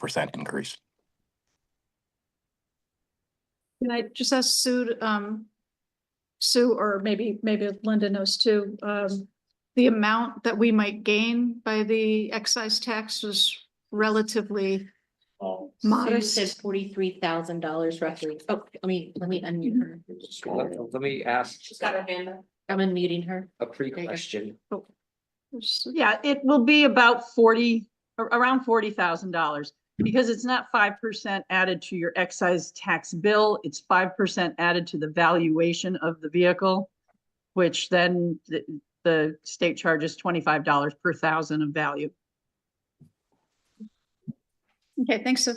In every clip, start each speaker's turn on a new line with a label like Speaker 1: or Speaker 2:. Speaker 1: percent increase.
Speaker 2: Can I just ask Sue, um, Sue, or maybe, maybe Linda knows too, um, the amount that we might gain by the excise tax was relatively,
Speaker 3: Oh,
Speaker 2: Modest.
Speaker 3: Sue said forty-three thousand dollars roughly. Oh, let me, let me unmute her.
Speaker 4: Let let me ask
Speaker 3: hand up. I'm unmuting her.
Speaker 4: a
Speaker 3: go.
Speaker 4: pre-question.
Speaker 5: Yeah, it will be about forty, ar- around forty thousand dollars. Because it's not five percent added to your excise tax bill, it's five percent added to the valuation of the vehicle. Which then the, the state charges twenty-five dollars per thousand of value.
Speaker 2: okay, thanks, Sue.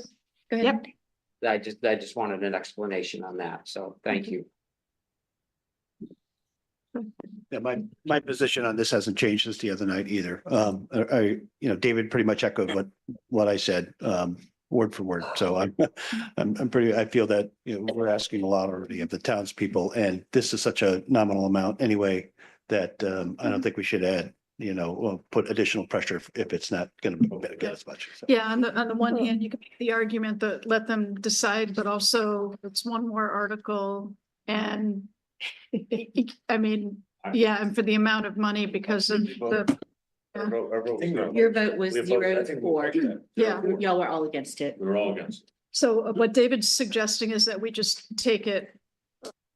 Speaker 2: Go ahead.
Speaker 5: Yep.
Speaker 4: I just, I just wanted an explanation on that, so thank you.
Speaker 6: Yeah, my, my position on this hasn't changed since the other night either. Um, I, I, you know, David pretty much echoed what, what I said, um, word for word. So I'm, I'm, I'm pretty, I feel that, you know, we're asking a lot already of the townspeople and this is such a nominal amount anyway that, um, I don't think we should add, you know, or put additional pressure if- if it's not going to get as much. So,
Speaker 2: Yeah, on the, on the one hand, you can make the argument that let them decide, but also it's one more article and I mean, yeah, and for the amount of money because of the,
Speaker 7: I wrote, I wrote.
Speaker 8: Think
Speaker 3: Your vote was
Speaker 7: We voted- I
Speaker 3: zero to
Speaker 7: think we
Speaker 3: four.
Speaker 7: voted that.
Speaker 2: yeah.
Speaker 3: Y'all were all against it.
Speaker 7: We were all against.
Speaker 2: So uh, what David's suggesting is that we just take it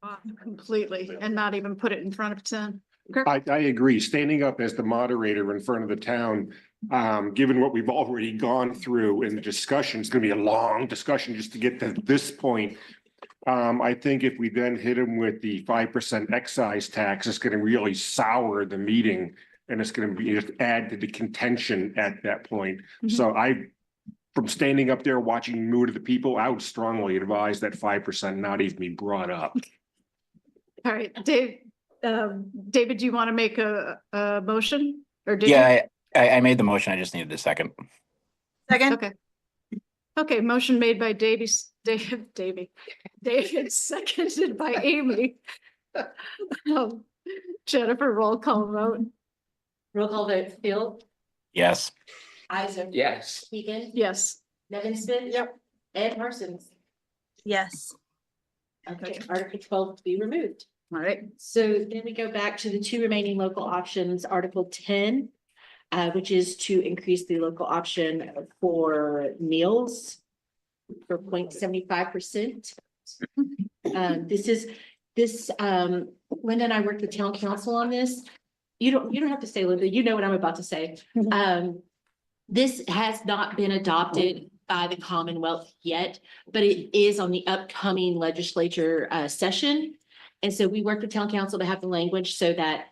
Speaker 2: off completely and not even put it in front of ten.
Speaker 8: I, I agree. Standing up as the moderator in front of the town, um, given what we've already gone through in the discussion, it's gonna be a long discussion just to get to this point. Um, I think if we then hit him with the five percent excise tax, it's gonna really sour the meeting. And it's gonna be, just add to the contention at that point. So I, from standing up there watching mood of the people, I would strongly advise that five percent not even be brought up.
Speaker 2: All right, Dave, um, David, do you want to make a, a motion? Or did you?
Speaker 1: Yeah, I, I- I made the motion. I just needed a second.
Speaker 5: Second.
Speaker 2: Okay. Okay, motion made by Davies, David, Davy, David, seconded by Amy. Um, Jennifer, roll call vote.
Speaker 3: Roll call vote, Phil.
Speaker 1: Yes.
Speaker 3: Isaac.
Speaker 4: Yes.
Speaker 3: Keegan.
Speaker 2: Yes,
Speaker 3: Nevin Smith. Yep. Ed Parsons.
Speaker 9: Yes.
Speaker 3: Okay, Article twelve to be removed.
Speaker 2: all right.
Speaker 3: So then we go back to the two remaining local options, Article ten, uh, which is to increase the local option for meals for 0.75 percent. Um, this is, this, um, Linda and I worked with town council on this. You don't, you don't have to say, Linda, you know what I'm about to say.
Speaker 2: Mhm.
Speaker 3: Um, this has not been adopted by the Commonwealth yet, but it is on the upcoming legislature, uh, session. And so we worked with town council to have the language so that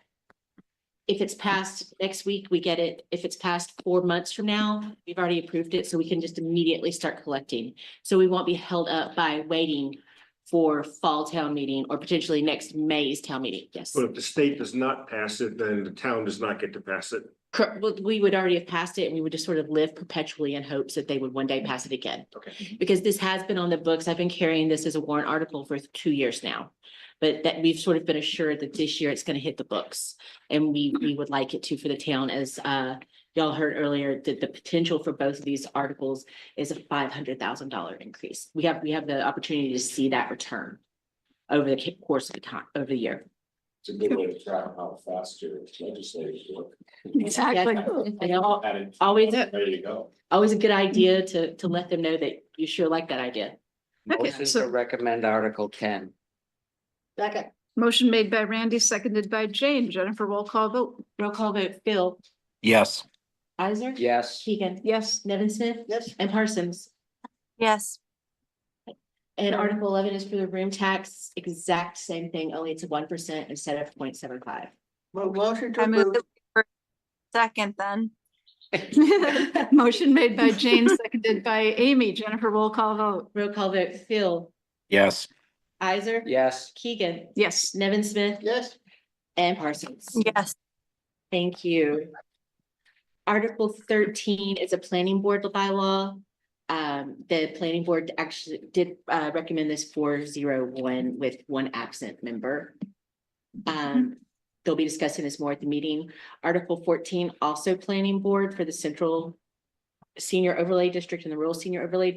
Speaker 3: if it's passed next week, we get it. If it's passed four months from now, we've already approved it, so we can just immediately start collecting. So we won't be held up by waiting for fall town meeting or potentially next May's town meeting. Yes.
Speaker 8: But if the state does not pass it, then the town does not get to pass it.
Speaker 3: Cor- well, we would already have passed it and we would just sort of live perpetually in hopes that they would one day pass it again.
Speaker 8: Okay.
Speaker 3: Because this has been on the books. I've been carrying this as a warrant article for two years now. But that we've sort of been assured that this year it's gonna hit the books. And we, we would like it to for the town as, uh, y'all heard earlier, that the potential for both of these articles is a five hundred thousand dollar increase. We have, we have the opportunity to see that return over the ca- course of the time, over the year.
Speaker 7: It's a good way to track how fast your legislators work.
Speaker 2: Exactly.
Speaker 3: And al-
Speaker 7: At it,
Speaker 3: Always,
Speaker 7: ready to go.
Speaker 3: always a good idea to, to let them know that you sure like that idea.
Speaker 2: Okay,
Speaker 4: Motion
Speaker 2: so-
Speaker 4: to recommend Article ten.
Speaker 3: Second.
Speaker 2: Motion made by Randy, seconded by Jane. Jennifer, roll call vote.
Speaker 3: Roll call vote, Phil,
Speaker 1: Yes.
Speaker 3: Isaac.
Speaker 4: Yes.
Speaker 3: Keegan,
Speaker 2: Yes,
Speaker 3: Nevin Smith. Yes. And Parsons.
Speaker 9: Yes.
Speaker 3: And Article eleven is for the room tax, exact same thing, only it's one percent instead of 0.75.
Speaker 9: I move that we were- Second then.
Speaker 2: motion made by Jane, seconded by Amy. Jennifer, roll call vote.
Speaker 3: Roll call vote, Phil,
Speaker 1: Yes.
Speaker 3: Isaac.
Speaker 4: Yes.
Speaker 3: Keegan,
Speaker 2: Yes.
Speaker 3: Nevin Smith. Yes. And Parsons.
Speaker 9: Yes.
Speaker 3: Thank you. Article thirteen is a planning board bylaw. Um, the planning board actually did uh recommend this four zero one with one absent member. Um, they'll be discussing this more at the meeting. Article fourteen, also planning board for the central senior overlay district and the rural senior overlay